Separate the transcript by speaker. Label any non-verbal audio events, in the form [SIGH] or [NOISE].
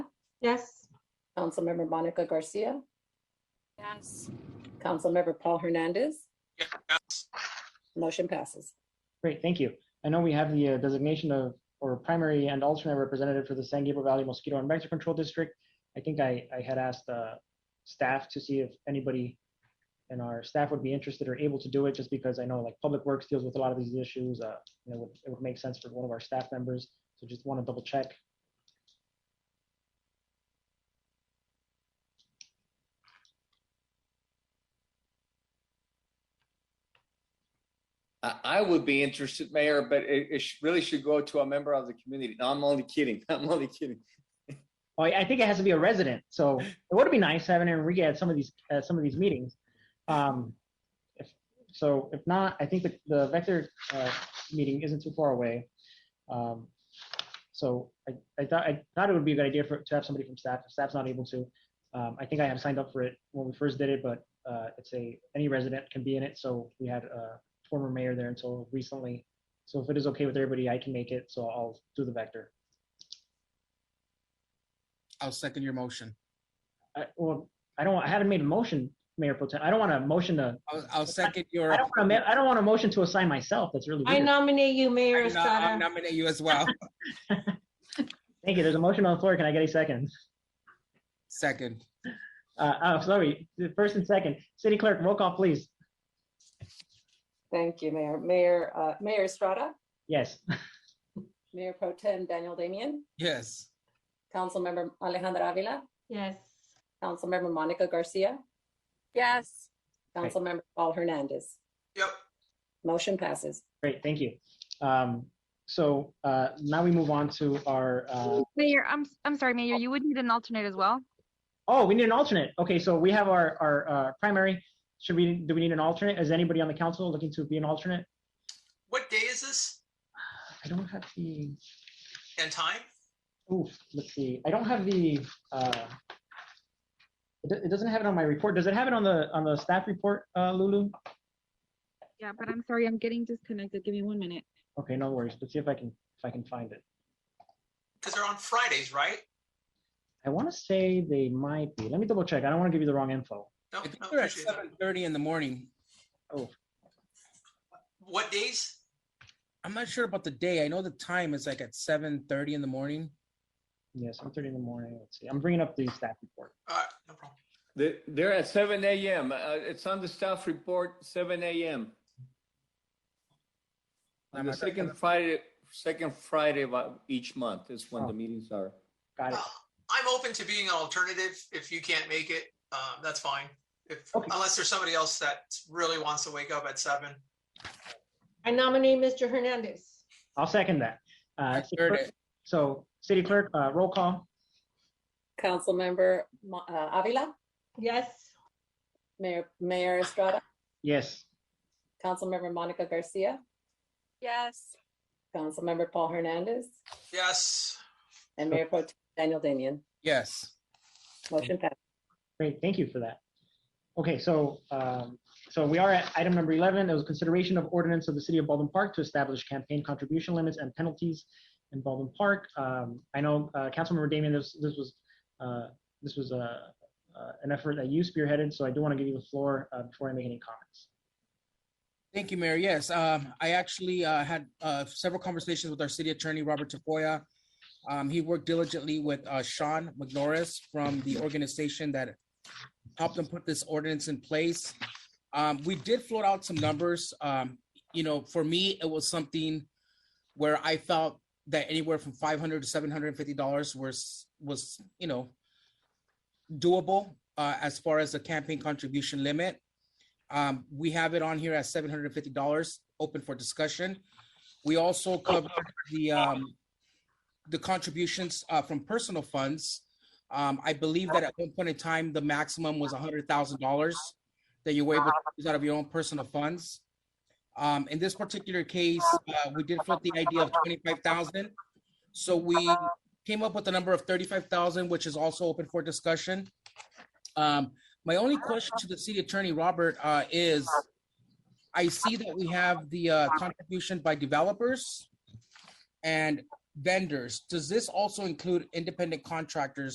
Speaker 1: Yes.
Speaker 2: Councilmember Monica Garcia,
Speaker 3: Yes.
Speaker 2: Councilmember Paul Hernandez.
Speaker 4: Yes.
Speaker 2: Motion passes.
Speaker 5: Great, thank you. I know we have the uh, designation of, or primary and alternate representative for the San Gabriel Valley Mosquito and Vector Control District. I think I, I had asked uh, staff to see if anybody in our staff would be interested or able to do it, just because I know like Public Works deals with a lot of these issues. uh, You know, would- it would make sense for one of our staff members. So just want to double check.
Speaker 6: I, I would be interested, Mayor, but it, it sh- really should go to a member of the community. No, I'm only kidding. [LAUGHS] I'm only kidding.
Speaker 5: Oh, I I think it has to be a resident. So it would be nice having Enrique at some of these, at some of these meetings. Um, if, so if not, I think the, the vector, uh, meeting isn't too far away. Um, so I, I thought, I thought it would be a good idea for, to have somebody from staff, if staff's not able to. Um, I think I had signed up for it when we first did it, but, uh, it's a, any resident can be in it. So we had a former mayor there until recently. So if it is okay with everybody, I can make it. So I'll do the vector.
Speaker 7: I'll second your motion.
Speaker 5: I, well, I don't, I haven't made a motion, Mayor Pro Tem. I don't want a motion to,
Speaker 7: I'll, I'll second your.
Speaker 5: I don't want to, I don't want a motion to assign myself. That's really
Speaker 1: I
Speaker 5: weird.
Speaker 1: nominate you, Mayor
Speaker 7: I nom- I
Speaker 1: Estrada.
Speaker 7: nominate you as well. [LAUGHS]
Speaker 5: Thank you. There's a motion on the floor. Can I get a second?
Speaker 7: Second,
Speaker 5: Uh, oh, sorry. The First and second. City Clerk, roll call, please.
Speaker 2: Thank you, Mayor. Mayor, uh, Mayor Estrada,
Speaker 5: Yes. [LAUGHS]
Speaker 2: Mayor Pro Tem Daniel Damian,
Speaker 7: yes.
Speaker 2: Councilmember Alejandra Avila,
Speaker 1: Yes.
Speaker 2: Councilmember Monica Garcia,
Speaker 3: Yes.
Speaker 5: Right.
Speaker 2: Councilmember Paul Hernandez.
Speaker 4: Yep.
Speaker 2: Motion passes.
Speaker 5: Great. Thank you. Um, so, uh, now we move on to our, uh,
Speaker 3: Mayor, I'm, I'm sorry, Mayor, you would need an alternate as well?
Speaker 5: oh, we need an alternate. Okay. So we have our, our, uh, primary. Should we, do we need an alternate? Is anybody on the council looking to be an alternate?
Speaker 4: What day is this
Speaker 5: I don't have the,
Speaker 4: and time?
Speaker 5: Oof, let's see. I don't have the, uh, it do- it doesn't have it on my report. Does it have it on the, on the staff report, uh, Lulu?
Speaker 3: Yeah, but I'm sorry, I'm getting disconnected. Give me one minute.
Speaker 5: Okay, no worries. Let's see if I can, if I can find it.
Speaker 4: Because they're on Fridays, right?
Speaker 5: I want to say they might be. Let me double check. I don't want to give you the wrong info.
Speaker 4: No,
Speaker 7: I think
Speaker 4: no,
Speaker 7: we're at
Speaker 4: appreciate that.
Speaker 7: seven thirty in the morning.
Speaker 4: What days?
Speaker 7: I'm not sure about the day. I know the time is like at seven thirty in the morning.
Speaker 5: Yes, I'm thirty in the morning. Let's see. I'm bringing up the staff report.
Speaker 4: Uh, no problem.
Speaker 6: They- They're at seven AM. Uh, It's on the staff report, seven AM. On
Speaker 7: I'm
Speaker 6: the
Speaker 7: not gonna-
Speaker 6: second Friday, second Friday of uh, each month is when
Speaker 5: Oh.
Speaker 6: the meetings are.
Speaker 5: Got it.
Speaker 4: Uh, I'm open to being an alternative. If you can't make it, uh, that's fine. If,
Speaker 5: Okay.
Speaker 4: unless there's somebody else that really wants to wake up at seven.
Speaker 1: I nominate Mr. Hernandez.
Speaker 5: I'll second that. Uh,
Speaker 7: I
Speaker 5: city
Speaker 7: heard
Speaker 5: clerk-
Speaker 7: it.
Speaker 5: so city clerk, uh, roll call.
Speaker 2: Councilmember Mo- uh, Avila,
Speaker 1: Yes.
Speaker 2: Mayor, Mayor Estrada,
Speaker 5: Yes.
Speaker 2: Councilmember Monica Garcia,
Speaker 3: Yes.
Speaker 2: Councilmember Paul Hernandez,
Speaker 4: Yes,
Speaker 2: and Mayor Pro Tem Daniel Damian.
Speaker 7: Yes.
Speaker 2: Motion passes.
Speaker 5: Great, thank you for that. Okay, so, um, so we are at item number 11. It was consideration of ordinance of the city of Baldwin Park to establish campaign contribution limits and penalties in Baldwin Park. Um, I know, uh, Councilmember Damian, this, this was, uh, this was, uh, uh, an effort that you spearheaded, so I do want to give you the floor, uh, before I make any comments.
Speaker 7: Thank you, Mayor. Yes, um, I actually uh, had uh, several conversations with our city attorney, Robert Tafoya. Um, He worked diligently with uh, Sean McNorris from the organization that helped him put this ordinance in place. Um, We did float out some numbers. Um, You know, for me, it was something where I felt that anywhere from five hundred to seven hundred and fifty dollars was, was, you know, doable uh, as far as the campaign contribution limit. Um, we have it on here at seven hundred and fifty dollars, open for discussion. We also covered the, um, the contributions, uh, from personal funds. Um, I believe that at one point in time, the maximum was hundred thousand dollars that you were able to use out of your own personal funds. Um, in this particular case, uh, we did float the idea of twenty-five thousand. So we came up with a number of thirty-five thousand, which is also open for discussion. Um, my only question to the city attorney, Robert, uh, is I see that we have the, uh, contribution by developers and vendors. Does this also include independent contractors